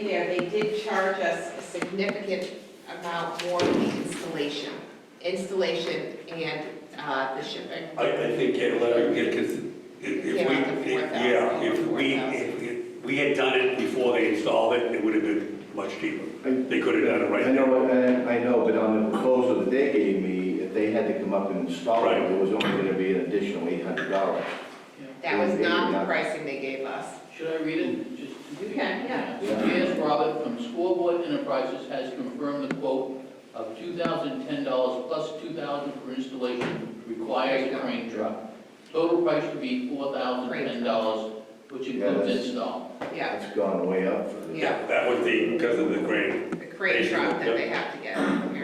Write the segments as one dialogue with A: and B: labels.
A: they did charge us a significant amount more for the installation, installation and uh, the shipping.
B: I, I think, yeah, let, yeah, because if we,
A: Yeah, the four thousand,
B: yeah, if we,
A: four thousand.
B: if we had done it before they installed it, it would have been much cheaper. They could have done it
C: I
B: right.
C: know, I I know, but on the proposal that they gave me, if they had to come up and install it,
B: Right.
C: it was only gonna be an additional eight hundred dollars.
A: That was not the pricing they gave us.
D: Should I read it? Just-
A: You can, yeah.
D: J.S. Robert from Scoreboard Enterprises has confirmed the quote of $2,010 plus $2,000 for installation requires a crane truck. Total price to be $4,010, which
C: Yeah,
D: includes
C: that's-
D: install.
A: Yeah,
C: It's gone way up for this.
A: Yeah.
B: That was the, because of the grant.
A: the crane truck that they have to get, apparently.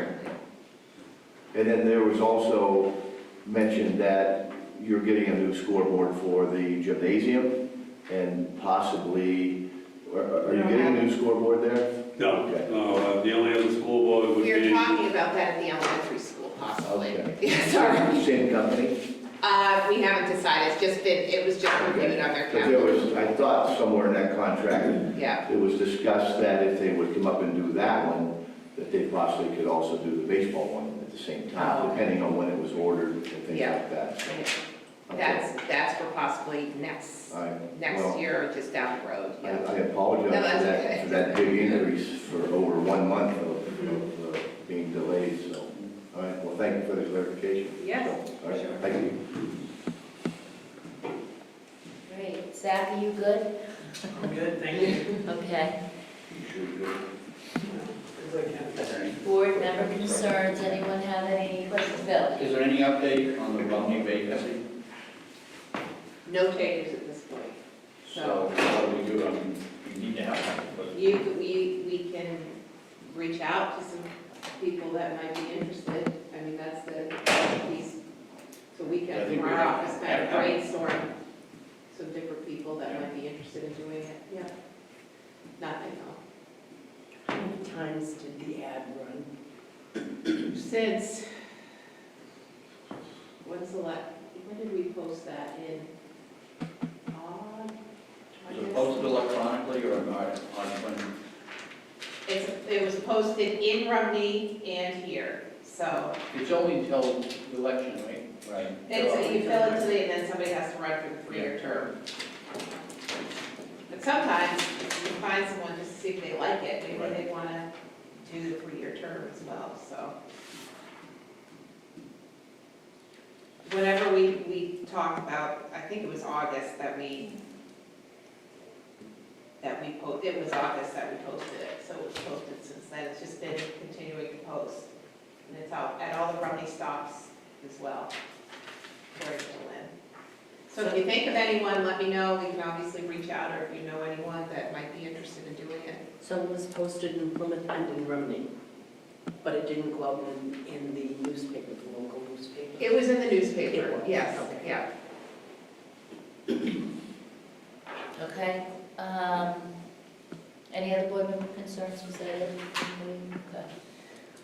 C: And then there was also mentioned that you're getting a new scoreboard for the gymnasium and possibly, are are you getting a new scoreboard there?
B: No,
C: Okay.
B: no, uh, the only other school board would
A: We were
B: be,
A: talking about that at the elementary school possibly.
C: Okay.
A: Yeah, Sorry.
C: Same company?
A: Uh, we haven't decided, it's just been, it was just included on their
C: But there
A: calendar.
C: was, I thought somewhere in that contract,
A: Yeah,
C: It was discussed that if they would come up and do that one, that they possibly could also do the baseball one at the same
A: Oh.
C: time, depending on when it was ordered and things
A: Yeah.
C: like that. so, okay.
A: that's, that's for possibly next,
C: I-
A: next
C: well,
A: year or just down the road,
C: I
A: yeah.
C: I
A: No,
C: apologize
A: that's
C: for that,
A: okay.
C: for that big increase for over one month of- of uh, being delayed, so. All right, well, thank you for the clarification.
A: Yes,
C: So, All right,
A: sure.
C: thank you.
E: Great, Zach, are you good?
F: I'm good, thank you.
E: Okay.
D: Is there any-
E: Board member concerns, anyone have any questions? Bill?
D: Is there any update on the Romney vacancy?
A: No changes at this point.
D: So what do we do? I mean, we need to have one, but
A: You, we, we can reach out to some people that might be interested. I mean, that's the piece. So we
D: I
A: can,
D: think
A: from our
D: we have-
A: office, kind of
D: have-
A: brainstorm some different people that might be interested in doing it. Yeah. Nothing else.
G: How many times did the ad run?
A: Since, when's the last, when did we post that in? Aug-
D: is it posted electronically or not? On when?
A: It's, it was posted in Rumney and here, so.
D: It's only until the election, right? Right.
A: It's, you fill it today and then somebody has to run for the three-year term. But sometimes you find someone just to see if they like it, maybe they wanna do the three-year term as well, so. Whenever we, we talked about, I think it was August that we, that we po, it was August that we posted it, so it was posted since then, it's just been continuing to post. And it's out, at all the Rumney stops as well. Very cool, Lynn. So if you think of anyone, let me know, we can obviously reach out, or if you know anyone that might be interested in doing it.
G: So it was posted in Plymouth and in Rumney, but it didn't go out in, in the newspaper, the local newspaper.
A: It was in the newspaper,
G: It was,
A: yes,
G: okay.
A: yeah.
E: Okay. Um, Any other board member concerns, was that it? Okay.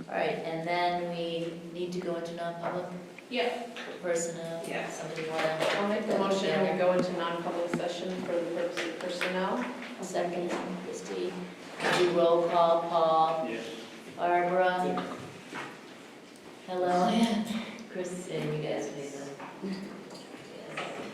E: All right, and then we need to go into non-public
A: Yeah.
E: personnel.
A: Yes.
E: Somebody wanna
H: I'll make the motion to go into non-public session for the purpose of personnel.
E: second, Christie? Do roll call, Paul,
D: Yes.
E: Barbara? Hello, Chris, and you guys made them. uh. Yes.